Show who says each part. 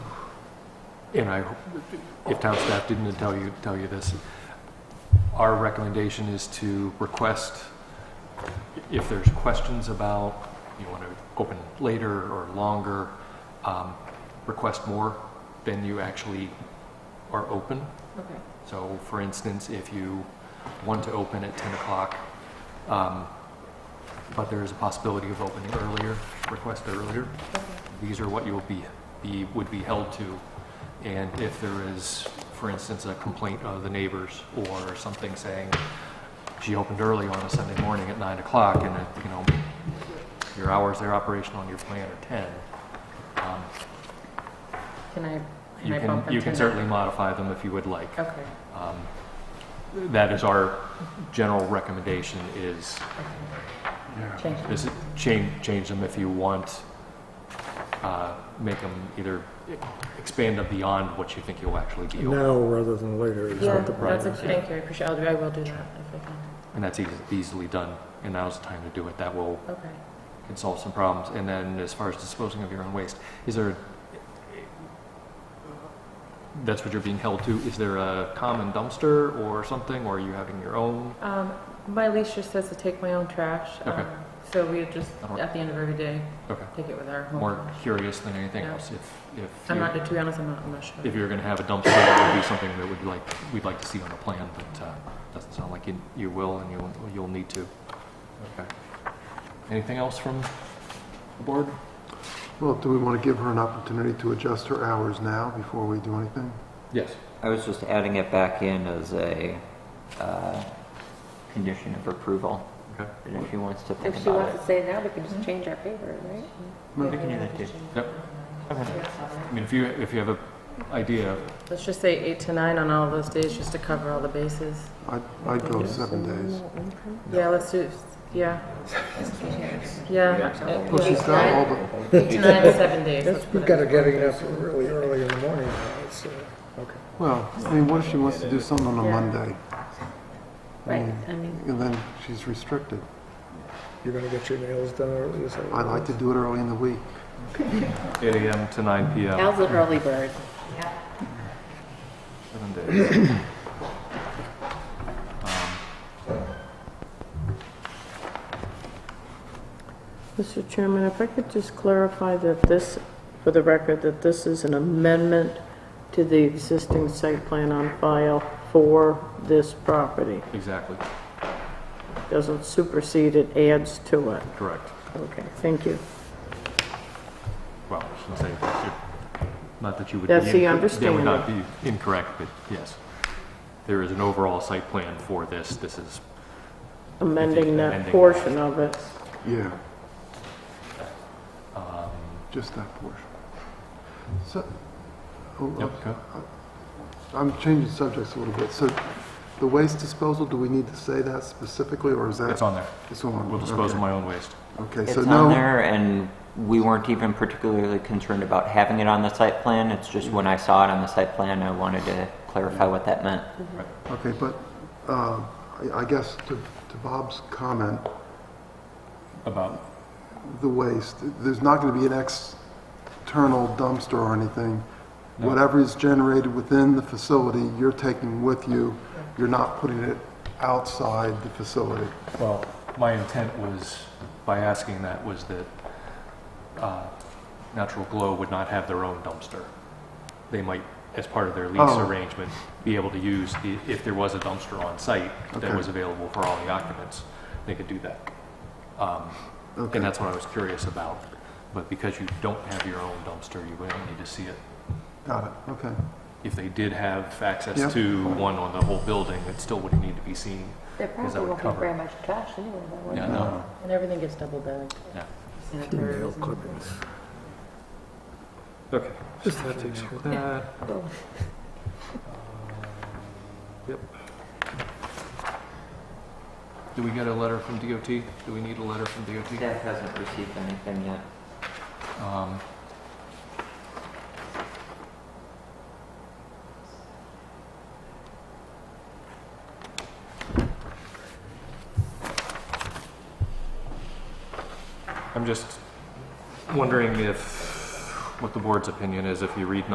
Speaker 1: and I, if town staff didn't tell you, tell you this, our recommendation is to request, if there's questions about, you want to open later or longer, um, request more than you actually are open.
Speaker 2: Okay.
Speaker 1: So for instance, if you want to open at 10 o'clock, um, but there is a possibility of opening earlier, request earlier, these are what you will be, be, would be held to. And if there is, for instance, a complaint of the neighbors or something saying, she opened early on a Sunday morning at 9 o'clock and, it, you know, your hours, their operation on your plan are 10, um,
Speaker 2: Can I, can
Speaker 1: you
Speaker 2: I
Speaker 1: can,
Speaker 2: bump them
Speaker 1: you
Speaker 2: to
Speaker 1: can
Speaker 2: nine?
Speaker 1: certainly modify them if you would like.
Speaker 2: Okay,
Speaker 1: Um, That is our general recommendation is,
Speaker 2: okay.
Speaker 3: Yeah.
Speaker 2: Change
Speaker 1: is change, change them if you want. uh, Make them either expand them beyond what you think you'll actually be. open.
Speaker 3: Now rather than later is
Speaker 2: Yeah,
Speaker 3: not the
Speaker 2: that's,
Speaker 3: problem.
Speaker 2: a- thank you, I appreciate, I'll do, I will do that if I can.
Speaker 1: And that's eas- easily done, and now's the time to do it. That will,
Speaker 2: Okay.
Speaker 1: can solve some problems. And then as far as disposing of your own waste, is there, that's what you're being held to, is there a common dumpster or something, or are you having your own?
Speaker 2: Um, my lease just says to take my own trash.
Speaker 1: Okay.
Speaker 2: um, So we just,
Speaker 1: That'll work.
Speaker 2: at the end of every day,
Speaker 1: Okay,
Speaker 2: take it with our home.
Speaker 1: more
Speaker 2: trash.
Speaker 1: curious than anything
Speaker 2: Yeah.
Speaker 1: else, if, if.
Speaker 2: I'm
Speaker 1: you-
Speaker 2: not, to be honest, I'm not, I'm not sure.
Speaker 1: If you're gonna have a dumpster, that would be something that would like, we'd like to see on the plan, but, uh, doesn't sound like you, you will and you'll, you'll need to. Okay. Anything else from the board?
Speaker 4: Well, do we want to give her an opportunity to adjust her hours now before we do anything?
Speaker 1: Yes.
Speaker 5: I was just adding it back in as a uh, condition of approval,
Speaker 1: Okay.
Speaker 5: and if she wants to think
Speaker 6: If she
Speaker 5: about
Speaker 6: wants
Speaker 5: it.
Speaker 6: to say it now, we can
Speaker 2: Mm-hmm.
Speaker 6: just change our favor, right?
Speaker 5: We can do that too.
Speaker 1: Yep. I mean, if you, if you have a idea,
Speaker 2: Let's just say eight to nine on all those days, just to cover all the bases.
Speaker 4: I'd, I'd go seven days.
Speaker 2: Yeah, let's do, yeah. Yeah.
Speaker 5: Yeah.
Speaker 4: Well, she's not all, but
Speaker 2: Eight to nine to seven days. let's
Speaker 3: That's,
Speaker 2: put
Speaker 3: we've
Speaker 2: it.
Speaker 3: got to getting up really early in the morning now, it's, uh, okay.
Speaker 4: well, I mean, what if she wants to do something on a
Speaker 2: Yeah.
Speaker 4: Monday?
Speaker 6: Right, I mean,
Speaker 4: And then she's restricted.
Speaker 3: You're going to get your nails done early, is that? what
Speaker 4: I'd like to do it early in the week.
Speaker 1: eight AM to nine PM,
Speaker 6: Al's an early bird.
Speaker 1: seven days. Um,
Speaker 7: Mr. Chairman, if I could just clarify that this, for the record, that this is an amendment to the existing site plan on file for this property.
Speaker 1: Exactly,
Speaker 7: Doesn't supersede, it adds to it.
Speaker 1: correct.
Speaker 7: Okay, thank you.
Speaker 1: Well, I shouldn't say, that you- not that you would. be
Speaker 7: That's the
Speaker 1: inc- They would not be incorrect, but yes. There is an overall site plan for this. This is
Speaker 7: Amending that
Speaker 1: Amending.
Speaker 7: portion of it.
Speaker 4: Yeah. Just that portion. So, oh,
Speaker 1: Yep, go.
Speaker 4: I'm changing subjects a little bit. So the waste disposal, do we need to say that specifically, or is that?
Speaker 1: It's on there.
Speaker 4: It's on.
Speaker 1: We'll dispose of
Speaker 4: okay.
Speaker 1: my own waste.
Speaker 4: Okay,
Speaker 5: It's
Speaker 4: so
Speaker 5: on
Speaker 4: no,
Speaker 5: there, and we weren't even particularly concerned about having it on the site plan. It's just when I saw it on the site plan, I wanted to clarify what that meant.
Speaker 4: okay, but uh, I- I guess to to Bob's comment,
Speaker 1: About?
Speaker 4: the waste, there's not going to be an external dumpster or anything.
Speaker 1: No.
Speaker 4: Whatever is generated within the facility, you're taking with you. You're not putting it outside the facility.
Speaker 1: Well, my intent was, by asking that, was that uh, Natural Glow would not have their own dumpster. They might, as part of their lease
Speaker 4: Oh.
Speaker 1: arrangement, be able to use, the- if there was a dumpster on site that
Speaker 4: Okay.
Speaker 1: was available for all the occupants, they could do that. Um,
Speaker 4: Okay.
Speaker 1: And that's what I was curious about. But because you don't have your own dumpster, you wouldn't need to see it.
Speaker 4: Got it, okay.
Speaker 1: If they did have
Speaker 4: Yeah.
Speaker 1: access to one on the whole building, it still wouldn't need to be seen.
Speaker 6: There
Speaker 1: that
Speaker 6: probably
Speaker 1: would
Speaker 6: won't be
Speaker 1: cover
Speaker 6: very
Speaker 1: it.
Speaker 6: much trash anyway, though. would
Speaker 1: Yeah,
Speaker 6: there?
Speaker 1: no,
Speaker 2: And everything gets double bagged.
Speaker 1: yeah.
Speaker 2: Sanitary
Speaker 3: Nail
Speaker 2: reasons.
Speaker 3: clippings.
Speaker 1: Okay.
Speaker 3: Just that takes care of
Speaker 6: Boom.
Speaker 1: Yep. Do we get a letter from DOT? Do we need a letter from DOT?
Speaker 5: Staff hasn't received anything yet.
Speaker 1: Um, I'm just wondering if, what the board's opinion is if you read